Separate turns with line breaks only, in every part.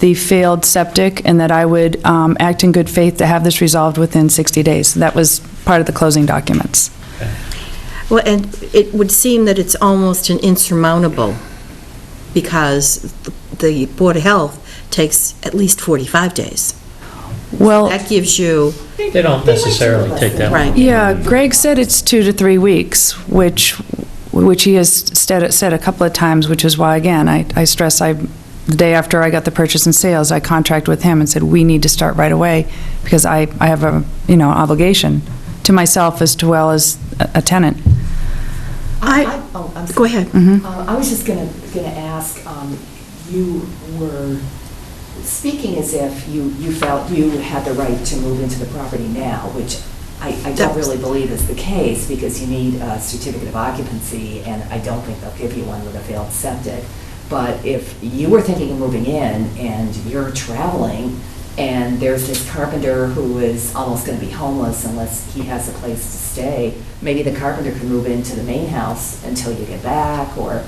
the failed septic and that I would um, act in good faith to have this resolved within 60 days. That was part of the closing documents.
Well, and it would seem that it's almost an insurmountable, because the Board of Health takes at least 45 days.
Well,
That gives you,
They don't necessarily take that long.
right.
yeah, Greg said it's two to three weeks, which, which he has said, said a couple of times, which is why, again, I, I stress, I, the day after I got the purchase and sales, I contracted with him and said, we need to start right away because I, I have a, you know, obligation to myself as well as a a tenant.
I,
oh, I'm
go
sorry.
ahead.
Uh, I was just gonna, gonna ask, um, you were speaking as if you, you felt you had the right to move into the property now, which I, I
That
don't
was-
really believe is the case, because you need a certificate of occupancy, and I don't think they'll give you one with a failed septic. But if you were thinking of moving in, and you're traveling, and there's this carpenter who is almost gonna be homeless unless he has a place to stay, maybe the carpenter could move into the main house until you get back, or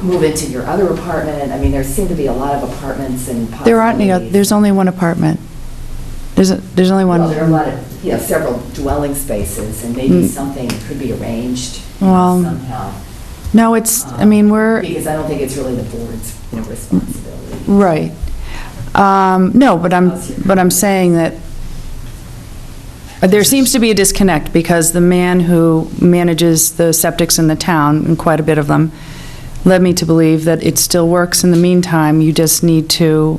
move into your other apartment. I mean, there seem to be a lot of apartments and possibilities.
There aren't any, oth- there's only one apartment. There's, a- there's only one.
Well, there are a lot of, you know, several dwelling spaces, and maybe
Mm.
something could be arranged
Well,
somehow.
No, it's, I mean,
um,
we're,
Because I don't think it's really the board's you know, responsibility.
right. Um, No, but I'm, but I'm saying that there seems to be a disconnect because the man who manages the septics in the town, and quite a bit of them, led me to believe that it still works in the meantime, you just need to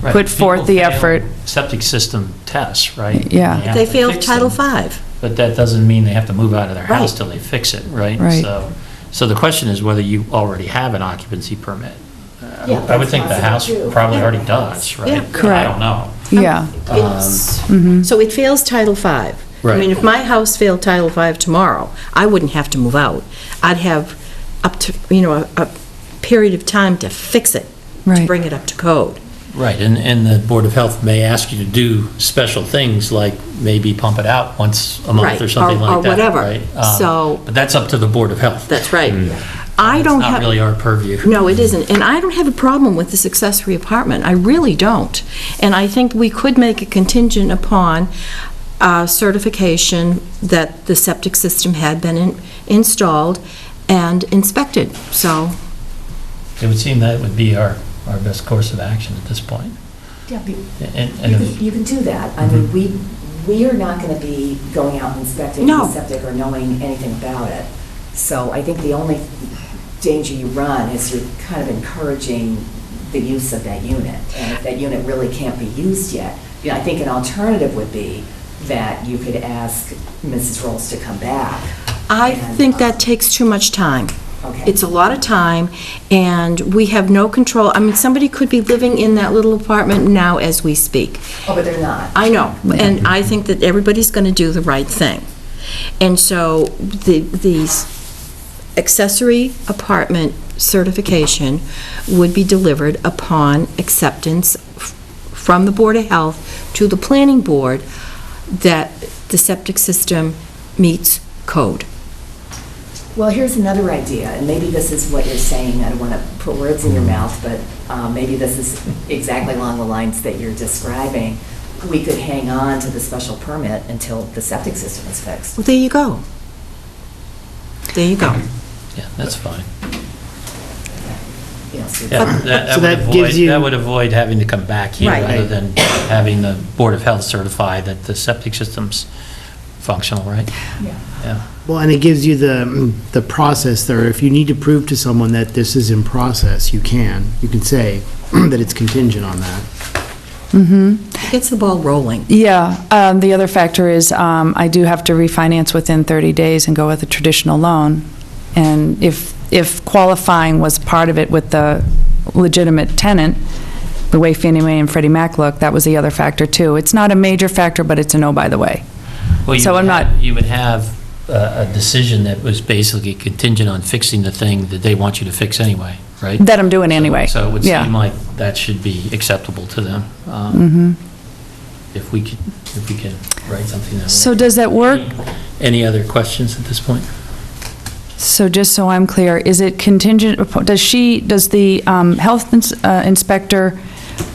Right.
put forth
People
the
fail
effort.
Septic system tests, right?
Yeah.
You have
They
to
failed
fix
Title
them,
V.
But that doesn't mean they have to move out of their house
Right.
till they fix it, right?
Right.
So, so the question is whether you already have an occupancy permit. Uh,
Yeah,
I would think the
that's
house
possible, too.
probably
Yeah.
already does, right?
Yeah.
I
Correct.
don't know.
Yeah,
Um, It's-
mhm.
So it fails Title V. I mean,
Um, Right.
if my house failed Title V tomorrow, I wouldn't have to move out. I'd have up to, you know, a- a period of time to fix it, to
Right.
bring it up to code.
Right, and, and the Board of Health may ask you to do special things, like maybe pump it out once a
Right,
month or something
or- or
like that,
whatever.
right? Um,
So-
But that's up to the Board of Health.
That's right. I
Hmm. It's
don't have...
not really our purview.
No, it isn't. And I don't have a problem with this accessory apartment. I really don't. And I think we could make a contingent upon uh, certification that the septic system had been in- installed and inspected. So,
It would seem that would be our, our best course of action at this point.
Yeah, be-
And,
You
and if- Mhm.
can, you can do that. I mean, we, we are not going to be going out and inspecting
No.
the septic or knowing anything about it. So I think the only danger you run is you're kind of encouraging the use of that unit. And if that unit really can't be used yet, you know, I think an alternative would be that you could ask Mrs. Rolls to come back.
I
and,
think that
um,
takes too much time.
Okay.
It's a lot of time, and we have no control. I mean, somebody could be living in that little apartment now as we speak.
Oh, but they're not.
I know, and I think that everybody's going to do the right thing. And so the, the accessory apartment certification would be delivered upon acceptance f- from the Board of Health to the Planning Board that the septic system meets code.
Well, here's another idea, and maybe this is what you're saying, I don't want to put words in your mouth, but uh, maybe this is exactly along the lines that you're describing. We could hang on to the special permit until the septic system is fixed.
Well, there you go. There you go.
yeah, that's fine.
You know, so-
Yeah, that- that
So that
would
gives
avoid,
you-
that would avoid having to come back here,
Right.
rather than having the Board of Health certify that the septic system's functional, right?
Yeah.
Yeah.
Well, and it gives you the, the process there. If you need to prove to someone that this is in process, you can. You can say that it's contingent on that.
It Gets the ball rolling.
Yeah, um, the other factor is um, I do have to refinance within 30 days and go with a traditional loan. And if, if qualifying was part of it with the legitimate tenant, the way Fannie Mae and Freddie Mac look, that was the other factor too. It's not a major factor, but it's a no, by the way.
Well, you
So
would
I'm
have-
not-
You would have a, a decision that was basically contingent on fixing the thing that they want you to fix anyway, right?
That I'm doing anyway.
So it would
Yeah.
seem like that should be acceptable to them. um,
Mhm.
If we could, if we could write something that would-
So does that work?
Any other questions at this point?
So just so I'm clear, is it contingent, upon- does she, does the um, health ins- uh, inspector